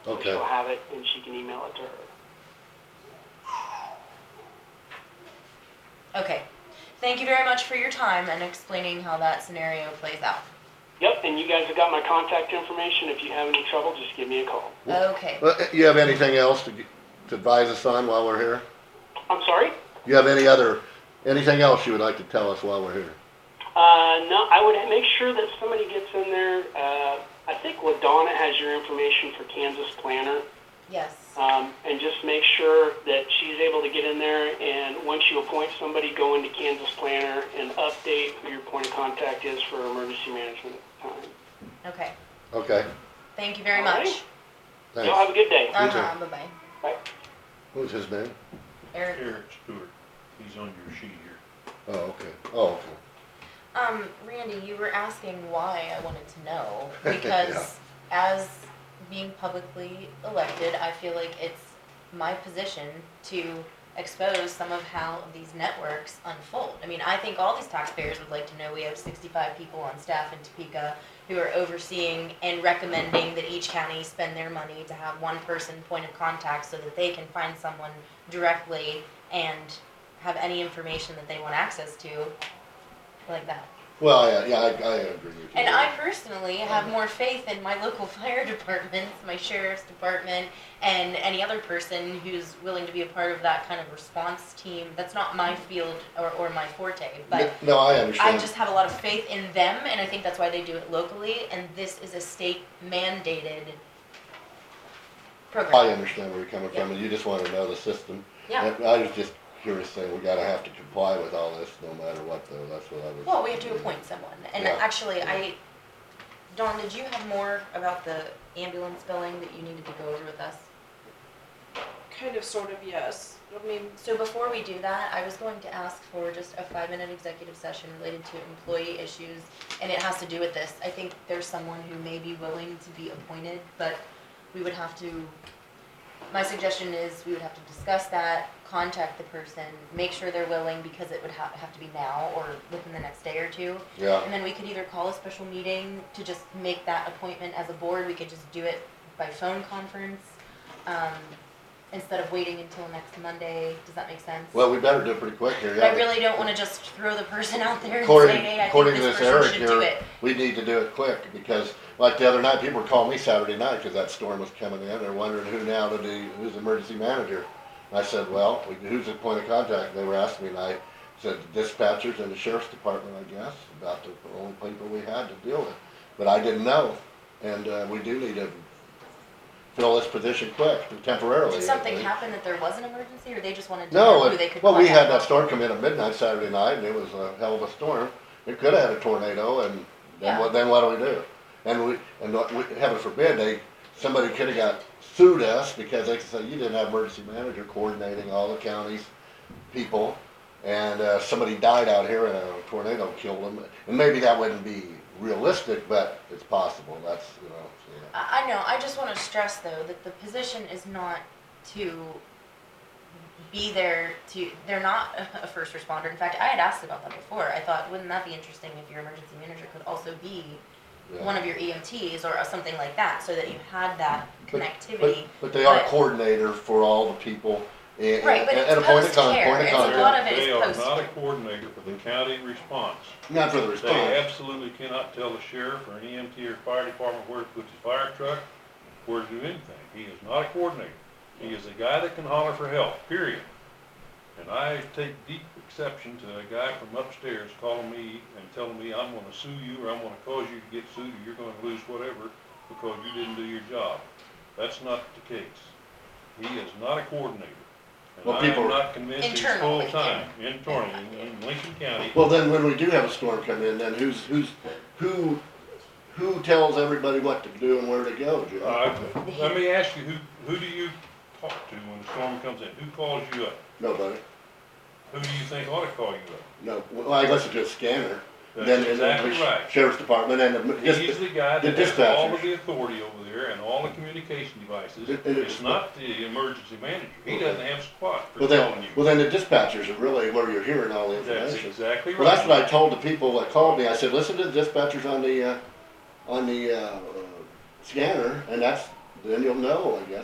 Okay, She'll have it and she can email it to her. Okay. Thank you very much for your time and explaining how that scenario plays out. Yep, and you guys have got my contact information. If you have any trouble, just give me a call. Okay. Well, eh, you have anything else to, g- to advise us on while we're here? I'm sorry? You have any other, anything else you would like to tell us while we're here? Uh, no, I would make sure that somebody gets in there. Uh, I think LaDonna has your information for Kansas Planner. Yes. Um, and just make sure that she's able to get in there and once you appoint somebody, go into Kansas Planner and update who your point of contact is for emergency management at the time. Okay. Okay, Thank you very All right. much. Y'all have thanks. a good day. You too. Uh-huh. Bye-bye. Who's his name? Eric. Eric Stewart, he's on your sheet here. Oh, okay, oh, okay. Um, Randy, you were asking why I wanted to know because as being publicly elected, I feel like it's my position to expose some of how these networks unfold. I mean, I think all these taxpayers would like to know we have 65 people on staff in Topeka who are overseeing and recommending that each county spend their money to have one person point of contact so that they can find someone directly and have any information that they want access to like that. Well, yeah, yeah, I, I agree with you. And there. I personally have more faith in my local fire departments, my sheriff's department, and any other person who's willing to be a part of that kind of response team. That's not my field or, or my forte, but No, I I understand. just have a lot of faith in them, and I think that's why they do it locally, and this is a state mandated I program. understand where you're coming from, and you just wanna know the system. Yeah, And I was just curious saying, we gotta have to comply with all this, no matter what, though, that's what I was. well, we have to appoint someone, and Yeah. actually, I, Dawn, did you have more about the ambulance billing that you needed to go over with us? Kind of, sort of, yes. I mean, So before we do that, I was going to ask for just a five-minute executive session related to employee issues, and it has to do with this. I think there's someone who may be willing to be appointed, but we would have to, my suggestion is we would have to discuss that, contact the person, make sure they're willing, because it would have, have to be now or within the next day or two. Yeah, And then we could either call a special meeting to just make that appointment as a board, we could just do it by phone conference, um, instead of waiting until next Monday, does that make sense? well, we better do it pretty quick here, But yeah. I really don't wanna just throw the person out there and say, According- hey, I think according to this this Eric person should do here, it. we need to do it quick, because like the other night, people were calling me Saturday night, cause that storm was coming in, they're wondering who now to do, who's the emergency manager. And I said, well, we- who's the point of contact, and they were asking me, and I said dispatchers and the sheriff's department, I guess, about the only people we had to deal with. But I didn't know, and, uh, we do need to fill this position quick, temporarily. Did something at least. happen that there was an emergency, or they just wanted to know No, who they it- could well, we had that contact? storm come in at midnight Saturday night, and it was a hell of a storm. It could have had a tornado, and then Yeah. what, then what do we do? And we, and what we- heaven forbid, they, somebody could have got sued us because they said, you didn't have emergency manager coordinating all the county's people. And, uh, somebody died out here and a tornado killed them. And maybe that wouldn't be realistic, but it's possible. That's, you know, yeah. I, I know, I just wanna stress though, that the position is not to be there to, they're not a first responder, in fact, I had asked about that before, I thought, wouldn't that be interesting if your emergency manager could also be yeah. one of your EMTs or something like that, so that you had that But- connectivity. But, but they are but- coordinator for all the people and, Right, and but and a it's point of con- post-care. point of It's a contact. lot of it is They are not a post-care. coordinator for the county response. Not for the They response. absolutely cannot tell the sheriff or an EMT or fire department where to put his fire truck, where to do anything. He is not a coordinator. He is a guy that can holler for help, period. And I take deep exception to a guy from upstairs calling me and telling me, I'm gonna sue you, or I'm gonna cause you to get sued, or you're gonna lose whatever, because you didn't do your job. That's not the case. He is not a coordinator. And Well, I am people- not convinced he's Internal, yeah. full-time, internally, in Lincoln County. Well, then when we do have a storm come in, then who's, who's, who, who tells everybody what to do and where to go, Joe? Uh, Let me ask you, who, who do you talk to when the storm comes in? Who calls you up? Nobody. Who do you think ought to call you up? No, well, I guess it's just scanner. Then That's and then exactly the right. Sheriff's Department and the, He's the guy the that has all dispatchers. of the authority over there and all the communication devices. It- it is- It's not the emergency manager. He doesn't have squat for well calling then, you. well then the dispatchers are really where you're hearing all the That's information. exactly right. Well, that's what I told the people that called me. I said, listen to the dispatchers on the, uh, on the, uh, scanner, and that's, then you'll know, I guess.